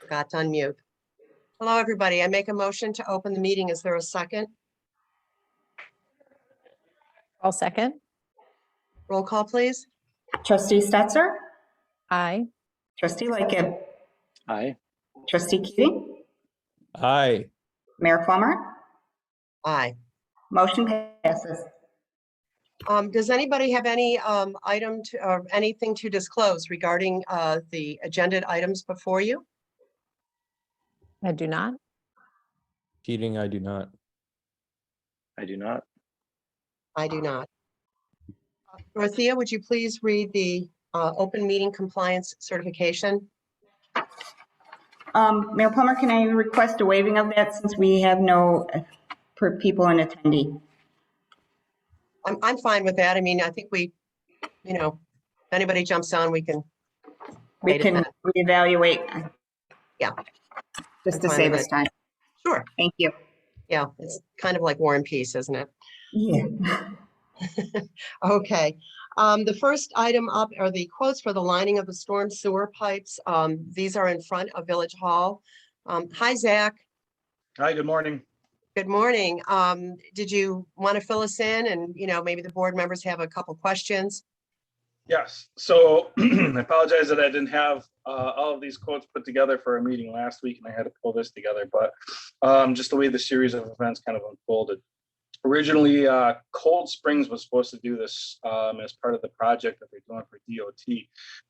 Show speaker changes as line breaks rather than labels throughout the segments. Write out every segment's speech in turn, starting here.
forgot to unmute. Hello, everybody. I make a motion to open the meeting. Is there a second?
I'll second.
Roll call, please.
Trustee Stetser?
Aye.
Trustee Lightgib?
Aye.
Trustee Keating?
Aye,
Mayor Plummer?
Aye.
Motion passes.
Um, does anybody have any, um, item to, or anything to disclose regarding, uh, the agenda items before you?
I do not.
Keating, I do not.
I do not.
I do not. Dorothea, would you please read the, uh, open meeting compliance certification?
Um, Mayor Plummer, can I request a waiving of that since we have no uh, per- people in attendee?
I'm, I'm fine with that. I mean, I think we, you know, if anybody jumps on, we can,
We
Wait a
can
minute.
reevaluate.
Yeah.
Just to
Fine
save
with
us
it.
time.
sure.
Thank you.
Yeah, it's kind of like War and Peace, isn't it?
Yeah.
Okay, um, the first item up are the quotes for the lining of the storm sewer pipes. Um, these are in front of Village Hall. Um, hi, Zach.
Hi, good morning.
Good morning. Um, did you want to fill us in? And, you know, maybe the board members have a couple questions.
Yes, so I apologize that I didn't have uh, all of these quotes put together for a meeting last week and I had to pull this together, but um, just the way the series of events kind of unfolded. Originally, uh, Cold Springs was supposed to do this um, as part of the project that they're doing for DOT,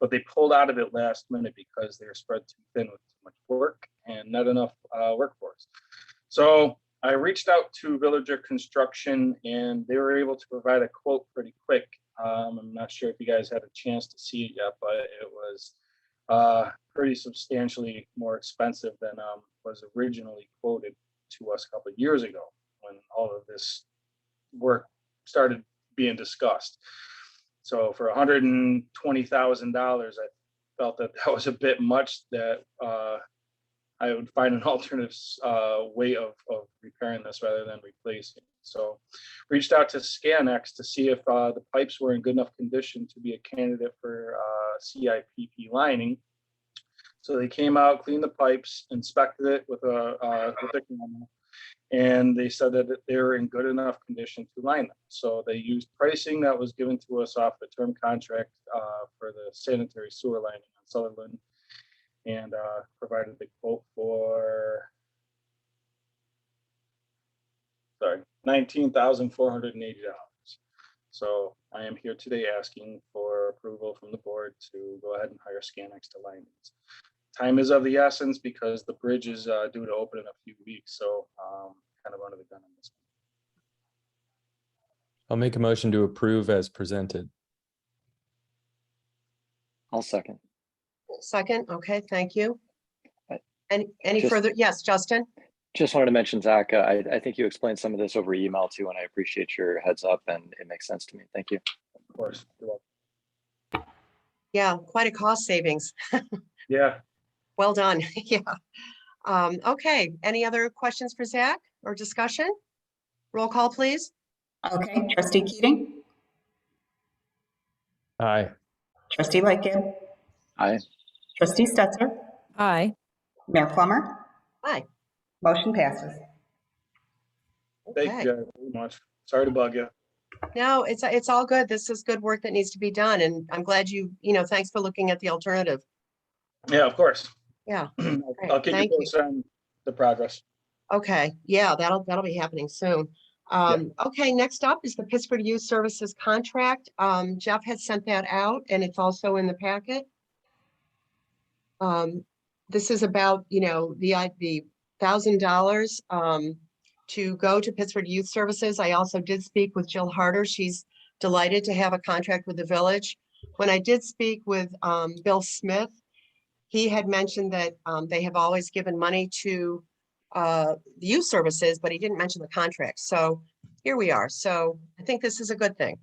but they pulled out of it last minute because they were spread too thin with too much work and not enough uh, workforce. So I reached out to Villager Construction and they were able to provide a quote pretty quick. Um, I'm not sure if you guys had a chance to see it yet, but it was uh, pretty substantially more expensive than um, was originally quoted to us a couple of years ago when all of this work started being discussed. So for hundred and twenty thousand dollars, I felt that that was a bit much that uh, I would find an alternative s- uh, way of, of repairing this rather than replacing. So reached out to Scanex to see if uh, the pipes were in good enough condition to be a candidate for uh, CIPP lining. So they came out, cleaned the pipes, inspected it with a, uh, with a camera, and they said that they were in good enough condition to line them. So they used pricing that was given to us off the term contract uh, for the sanitary sewer lining on Sutherland and uh, provided the quote for sorry, nineteen thousand four hundred and eighty dollars. So I am here today asking for approval from the board to go ahead and hire Scanix to line these. Time is of the essence because the bridge is uh, due to open in a few weeks, so um, kind of under the gun on this.
I'll make a motion to approve as presented.
I'll second.
Second, okay, thank you.
I-
Any, any
Just-
further? Yes, Justin?
Just wanted to mention, Zach, uh, I, I think you explained some of this over email too, and I appreciate your heads up and it makes sense to me. Thank you.
Of course, you're welcome.
Yeah, quite a cost savings.
yeah,
Well done, yeah. Um, okay, any other questions for Zach or discussion? Roll call, please.
Okay, trustee Keating?
Aye,
Trustee Lightgib?
Aye.
Trustee Stetser?
Aye.
Mayor Plummer?
Aye.
Motion passes.
thank
Okay.
you guys very much. Sorry to bug you.
No, it's, it's all good. This is good work that needs to be done and I'm glad you, you know, thanks for looking at the alternative.
Yeah, of course.
Yeah.
I'll keep you
Thank you.
posted on the progress.
Okay, yeah, that'll, that'll be happening soon. Um, okay, next up is the Pittsburgh Youth Services contract. Um, Jeff has sent that out and it's also in the packet. Um, this is about, you know, the, I- the thousand dollars, um, to go to Pittsburgh Youth Services. I also did speak with Jill Harder. She's delighted to have a contract with the village. When I did speak with, um, Bill Smith, he had mentioned that, um, they have always given money to, uh, the youth services, but he didn't mention the contract. So here we are. So I think this is a good thing.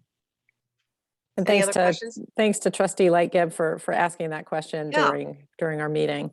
And
Any
thanks
other
to,
questions?
thanks to trustee Lightgib for, for asking that question
Yeah.
during, during our meeting.